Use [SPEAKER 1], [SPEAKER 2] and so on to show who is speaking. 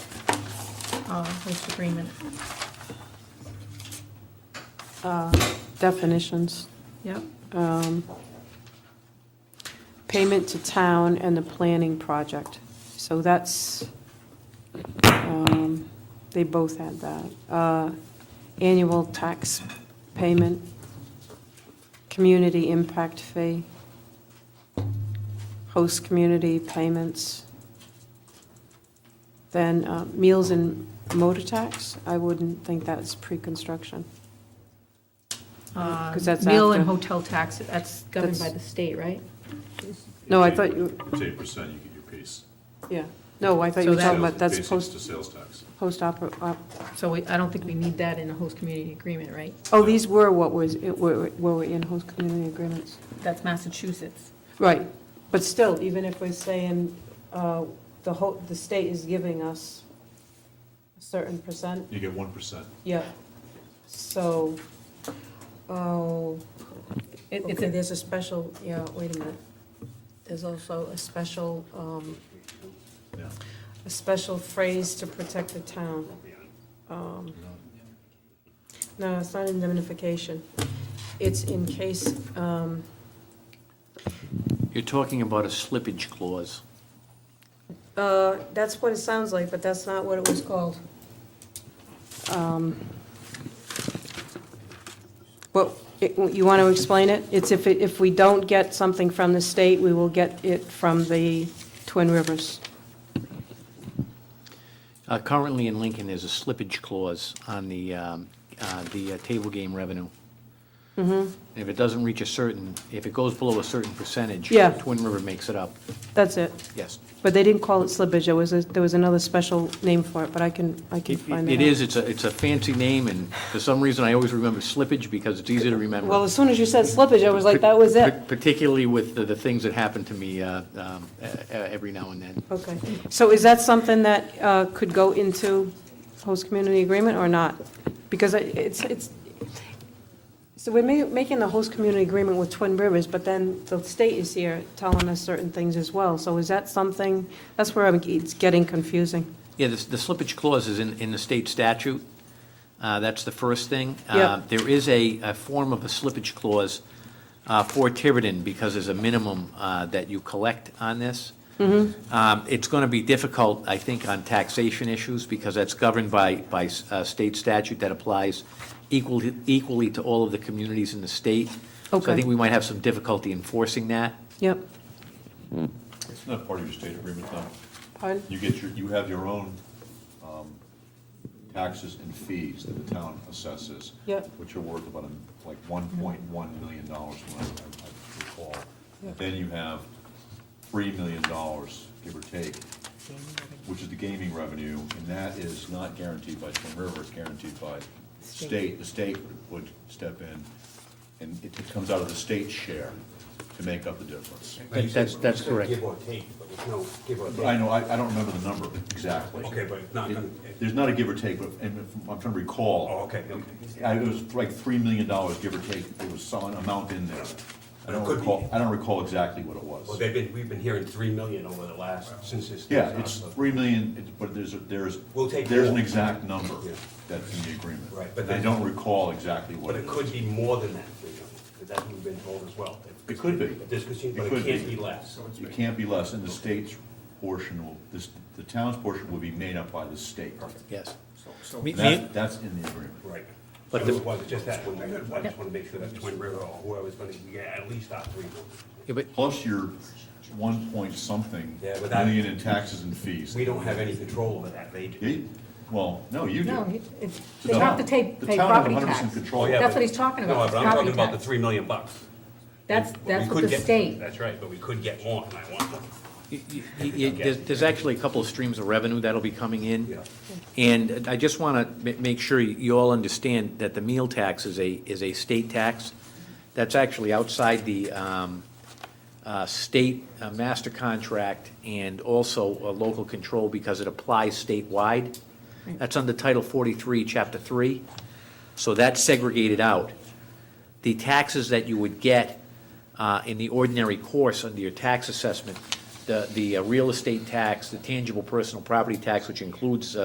[SPEAKER 1] uh, host agreement.
[SPEAKER 2] definitions.
[SPEAKER 1] Yep,
[SPEAKER 2] um, Payment to town and the planning project. So that's, um, they both had that. Uh, Annual tax payment, community impact fee, host community payments. Then uh, meals and motor tax, I wouldn't think that's pre-construction. Because that's
[SPEAKER 1] Um, Uh, meal and
[SPEAKER 2] after.
[SPEAKER 1] hotel tax, that's governed by the state, right?
[SPEAKER 2] No, I thought you-
[SPEAKER 3] It's eight percent, you get your piece.
[SPEAKER 2] Yeah, no, I thought you
[SPEAKER 1] So
[SPEAKER 2] were talking
[SPEAKER 1] that-
[SPEAKER 2] about, that's
[SPEAKER 3] Basics
[SPEAKER 2] post,
[SPEAKER 3] to sales tax.
[SPEAKER 2] post opera, op-
[SPEAKER 1] So we- I don't think we need that in a host community agreement, right?
[SPEAKER 2] oh, these were what was, it were, were in host community agreements.
[SPEAKER 1] That's Massachusetts.
[SPEAKER 2] Right, but still, even if we're saying, uh, the whole, the state is giving us a certain percent,
[SPEAKER 3] You get one percent.
[SPEAKER 2] yeah, so, oh,
[SPEAKER 1] It- It's
[SPEAKER 2] okay,
[SPEAKER 1] a,
[SPEAKER 2] there's a special, yeah, wait a minute. There's also a special, um,
[SPEAKER 3] Yeah.
[SPEAKER 2] a special phrase to protect the town. Um, No, it's not indemnification. It's in case, um,
[SPEAKER 4] You're talking about a slippage clause.
[SPEAKER 2] uh, that's what it sounds like, but that's not what it was called. Um, Well, it- you want to explain it? It's if, it- if we don't get something from the state, we will get it from the Twin Rivers.
[SPEAKER 4] Uh, Currently in Lincoln, there's a slippage clause on the, um, uh, the uh, table game revenue.
[SPEAKER 2] Mm-hmm.
[SPEAKER 4] If it doesn't reach a certain, if it goes below a certain percentage.
[SPEAKER 2] Yeah.
[SPEAKER 4] Twin River makes it up,
[SPEAKER 2] That's it.
[SPEAKER 4] yes.
[SPEAKER 2] But they didn't call it slippage, there was, a- there was another special name for it, but I can, I can
[SPEAKER 4] It
[SPEAKER 2] find that
[SPEAKER 4] it
[SPEAKER 2] out.
[SPEAKER 4] is, it's a, it's a fancy name, and for some reason, I always remember slippage because it's easy to remember.
[SPEAKER 2] Well, as soon as you said slippage, I was like, that was it.
[SPEAKER 4] Par- Particularly with the, the things that happen to me uh, um, e- e- every now and then.
[SPEAKER 2] Okay, so is that something that uh, could go into host community agreement or not? Because I- it's, it's, so we're ma- making the host community agreement with Twin Rivers, but then the state is here telling us certain things as well. So is that something, that's where I'm- it's getting confusing.
[SPEAKER 4] Yeah, the the slippage clause is in, in the state statute. Uh, That's the first thing. Uh,
[SPEAKER 2] Yeah.
[SPEAKER 4] There is a, a form of a slippage clause uh, for Tiverton because there's a minimum uh, that you collect on this. Um, It's going to be difficult, I think, on taxation issues because that's governed by, by uh, state statute that applies equally, equally to all of the communities in the state. So I
[SPEAKER 2] Okay.
[SPEAKER 4] think we might have some difficulty enforcing that.
[SPEAKER 2] Yep.
[SPEAKER 3] It's not part of your state agreement, though.
[SPEAKER 2] Pardon?
[SPEAKER 3] You get your, you have your own um, taxes and fees that the town assesses.
[SPEAKER 2] Yep.
[SPEAKER 3] Which are worth about um, like one point one million dollars, when I I recall.
[SPEAKER 2] Yep.
[SPEAKER 3] Then you have three million dollars, give or take, which is the gaming revenue, and that is not guaranteed by Twin River, it's guaranteed by state. The state would step in, and it comes out of the state's share to make up the difference.
[SPEAKER 4] That- That's, that's correct.
[SPEAKER 5] Give or take, but there's no give or
[SPEAKER 3] But I
[SPEAKER 5] take.
[SPEAKER 3] know, I, I don't remember the number exactly.
[SPEAKER 5] Okay, but it's not gonna-
[SPEAKER 3] It- There's not a give or take, but, and if- I'm trying to recall.
[SPEAKER 5] Oh, okay, okay.
[SPEAKER 3] I- It was like three million dollars, give or take, there was some amount in there. I
[SPEAKER 5] But it
[SPEAKER 3] don't
[SPEAKER 5] could be-
[SPEAKER 3] recall, I don't recall exactly what it was.
[SPEAKER 5] Well, they've been, we've been hearing three million over the last, since this.
[SPEAKER 3] Yeah, it's three million, it's- but there's, a- there's,
[SPEAKER 5] We'll take
[SPEAKER 3] there's an
[SPEAKER 5] more.
[SPEAKER 3] exact number
[SPEAKER 5] Yeah.
[SPEAKER 3] that's in the agreement.
[SPEAKER 5] Right, but
[SPEAKER 3] I
[SPEAKER 5] that-
[SPEAKER 3] don't recall exactly what
[SPEAKER 5] But
[SPEAKER 3] it
[SPEAKER 5] it
[SPEAKER 3] was.
[SPEAKER 5] could be more than that, three million, because that's what we've been told as well.
[SPEAKER 3] It could be.
[SPEAKER 5] But This could,
[SPEAKER 3] It
[SPEAKER 5] but
[SPEAKER 3] could
[SPEAKER 5] it can't be less.
[SPEAKER 3] It can't be less, and the state's portion will, this, the town's portion will be made up by the state.
[SPEAKER 4] Yes.
[SPEAKER 3] And That, that's in the agreement.
[SPEAKER 5] Right.
[SPEAKER 4] But
[SPEAKER 5] But
[SPEAKER 4] the-
[SPEAKER 5] it was just that, one. I just want to make sure that Twin River or whoever's gonna get at least our three million.
[SPEAKER 4] Yeah, but
[SPEAKER 3] Plus your one point something
[SPEAKER 5] Yeah, but that-
[SPEAKER 3] million in taxes and fees.
[SPEAKER 5] We don't have any control over that, they do.
[SPEAKER 3] You- Well, no, you
[SPEAKER 1] no,
[SPEAKER 3] do.
[SPEAKER 1] it's,
[SPEAKER 3] The
[SPEAKER 1] they have to
[SPEAKER 3] town-
[SPEAKER 1] take,
[SPEAKER 3] the
[SPEAKER 1] pay
[SPEAKER 3] town has
[SPEAKER 1] property
[SPEAKER 3] 100%
[SPEAKER 1] tax.
[SPEAKER 3] control.
[SPEAKER 5] Oh, Yeah,
[SPEAKER 1] That's
[SPEAKER 5] but-
[SPEAKER 1] what he's talking
[SPEAKER 5] No,
[SPEAKER 1] about,
[SPEAKER 5] but
[SPEAKER 1] is
[SPEAKER 5] I'm talking
[SPEAKER 1] property
[SPEAKER 5] about the
[SPEAKER 1] tax.
[SPEAKER 5] three million bucks.
[SPEAKER 1] That's,
[SPEAKER 5] We
[SPEAKER 1] that's
[SPEAKER 5] could
[SPEAKER 1] what the
[SPEAKER 5] get-
[SPEAKER 1] state,
[SPEAKER 5] That's right, but we could get more, and I want more.
[SPEAKER 4] Y- y- y- There's there's actually a couple of streams of revenue that'll be coming in.
[SPEAKER 5] Yeah.
[SPEAKER 4] And I just want to make sure you all understand that the meal tax is a, is a state tax. That's actually outside the um, uh, state uh, master contract and also uh, local control because it applies statewide. That's under Title 43, Chapter 3. So that's segregated out. The taxes that you would get uh, in the ordinary course under your tax assessment, the, the uh, real estate tax, the tangible personal property tax, which includes uh,